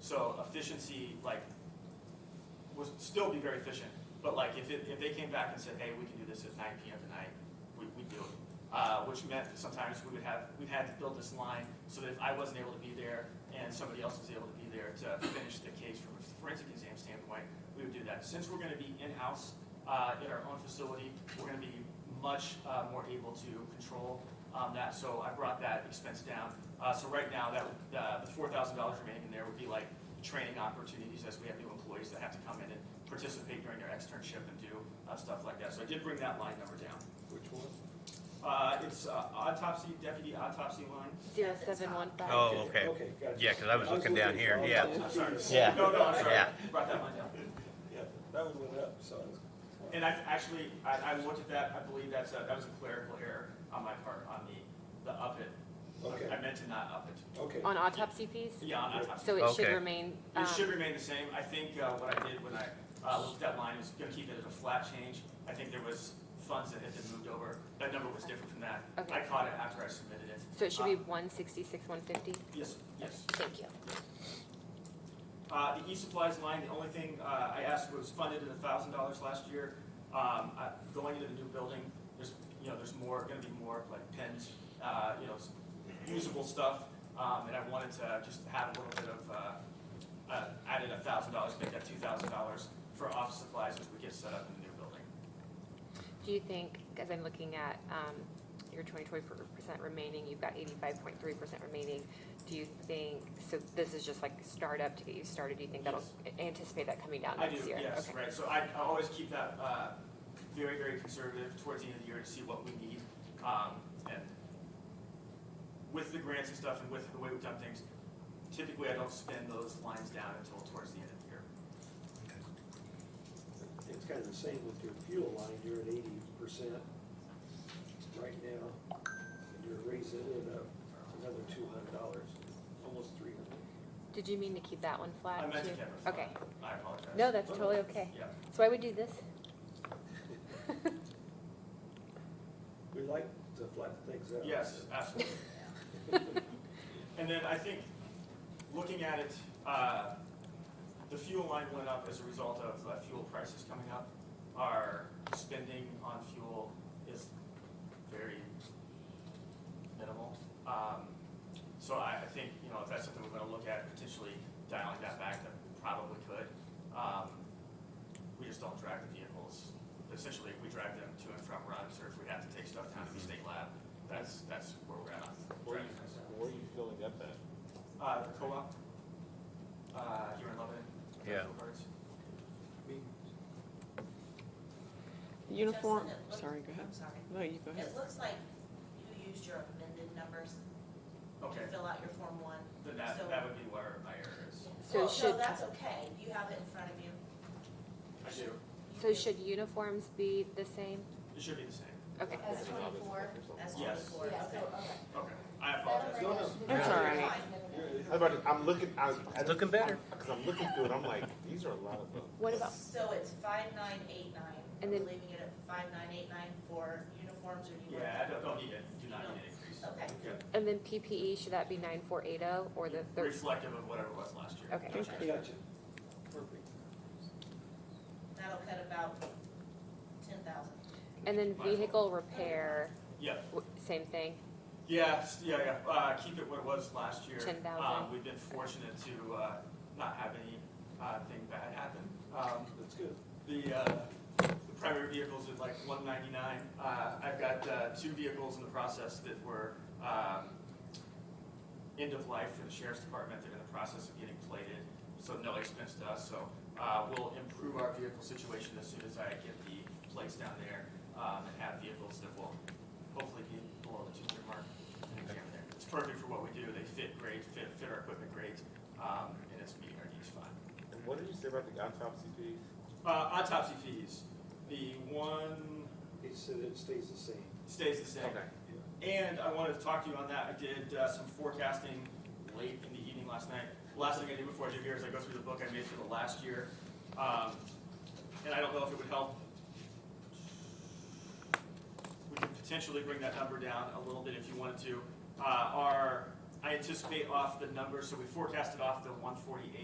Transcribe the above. So efficiency, like, would still be very efficient, but like, if it, if they came back and said, hey, we can do this at nine PM tonight, we, we'd do it. Uh, which meant that sometimes we would have, we had to build this line so that if I wasn't able to be there and somebody else was able to be there to finish the case from a forensic exam standpoint, we would do that. Since we're gonna be in-house, uh, in our own facility, we're gonna be much, uh, more able to control, um, that, so I brought that expense down. Uh, so right now, that, would- uh, the four thousand dollars remaining in there would be like training opportunities as we have new employees that have to come in and participate during their externship and do, uh, stuff like that. So I did bring that line number down. Which one? Uh, it's uh, autopsy, deputy autopsy line. Zero seven one five. Oh, okay. Okay, gotcha. Yeah, 'cause I was looking down here, for yeah. I'm sorry. autopsy. Yeah. No, no, I'm sorry. Yeah. Brought that line down. Yeah, that one went up, so. And I actually, I, I looked at that, I believe that's a, that was a clerical error on my part on the, the up it. Okay, I meant to not up it. okay. On autopsy fees? Yeah, on autopsy. So it should Okay. remain, um, It should remain the same. I think, uh, what I did when I, uh, looked at that line is gonna keep it as a flat change. I think there was funds that had been moved over. That number was different from that. I Okay. caught it after I submitted it. so it should be one sixty-six, one fifty? Yes, yes. Thank you. Uh, the e-supplies line, the only thing, uh, I asked was funded at a thousand dollars last year. Um, I, going into the new building, there's, you know, there's more, gonna be more like pens, uh, you know, s- usable stuff. Um, and I wanted to just have a little bit of, uh, uh, added a thousand dollars, make that two thousand dollars for office supplies as we get set up in the new building. Do you think, as I'm looking at, um, your twenty-four percent remaining, you've got eighty-five point three percent remaining, do you think, so this is just like startup to get you started, do you think that'll, anticipate that coming down I do, uh, next year? yes, Okay. right, so I, I always keep that, uh, very, very conservative towards the end of the year to see what we need. Um, and with the grants and stuff and with the way we've done things, typically I don't spend those lines down until towards the end of the year. It's kind of the same with your fuel line, you're at eighty percent right now, and you're raising it up another two hundred dollars, almost three hundred. Did you mean to keep that one I flat meant to too? keep it Okay, flat. I apologize. no, that's totally okay. Yeah, So I would do this? We like to flatten things out. yes, absolutely. And then I think, looking at it, uh, the fuel line went up as a result of uh, fuel prices coming up. Our spending on fuel is very minimal. Um, So I, I think, you know, if that's something we're gonna look at, potentially dialing that back, that we probably could. Um, We just don't drag the vehicles. Essentially, we drag them to and from runs, or if we have to take stuff down to the state lab, that's, that's where we're at. on Where are dragging things down. you, where are you filling up at? Uh, the co-op, uh, here in Lebanon. Yeah. Uniform, Justin, it looks- sorry, go ahead. I'm sorry. No, you go ahead. It looks like you used your amended numbers to Okay, fill out your Form One. then that, So- that would be where my error is. So Well, should- No, that's okay. You have it in front of you. I do, You So do. should uniforms be the same? it should be the same. Okay. As twenty-four, That's Yes. twenty-four, yeah, so, okay. okay. Okay, I apologize. No, no. That's all right. I'm about to, I'm looking, I. I- Looking better. Cause I'm looking through it, I'm like, these are a lot of them. What about, So it's five nine eight nine. And then- Leaving it at five nine eight nine for uniforms or you want? Yeah, I don't, don't need it, do not need an increase. Okay. Yeah, and then PPE, should that be nine four eight oh or the third? Reflective of whatever it was last year. Okay. Gotcha, perfect. That'll cut about ten thousand. And then vehicle repair, Yeah, w- same thing? yeah, s- yeah, yeah, uh, keep it what it was last year. 10,000. Um, we've been fortunate to, uh, not have any, uh, thing bad happen. Um, That's good. the, uh, the primary vehicles at like one ninety-nine. Uh, I've got, uh, two vehicles in the process that were, um, end of life for the sheriff's department. They're in the process of getting plated, so no expense to us. So, uh, we'll improve our vehicle situation as soon as I get the plates down there, um, and have vehicles that will hopefully be below the two-year mark in the exam there. It's perfect for what we do. They fit great, fit, fit our equipment great, um, and it's meeting our needs fine. And what did you say about the autopsy fees? Uh, autopsy fees, the one He said it stays the same. stays the same. And I wanted to talk to you on that, I did uh, some forecasting late in the evening last night. Last thing I do before I do here is I go through the book I made for the last year. Um, And I don't know if it would help. We could potentially bring that number down a little bit if you wanted to. Uh, Our, I anticipate off the number, so we forecasted off the one forty-eight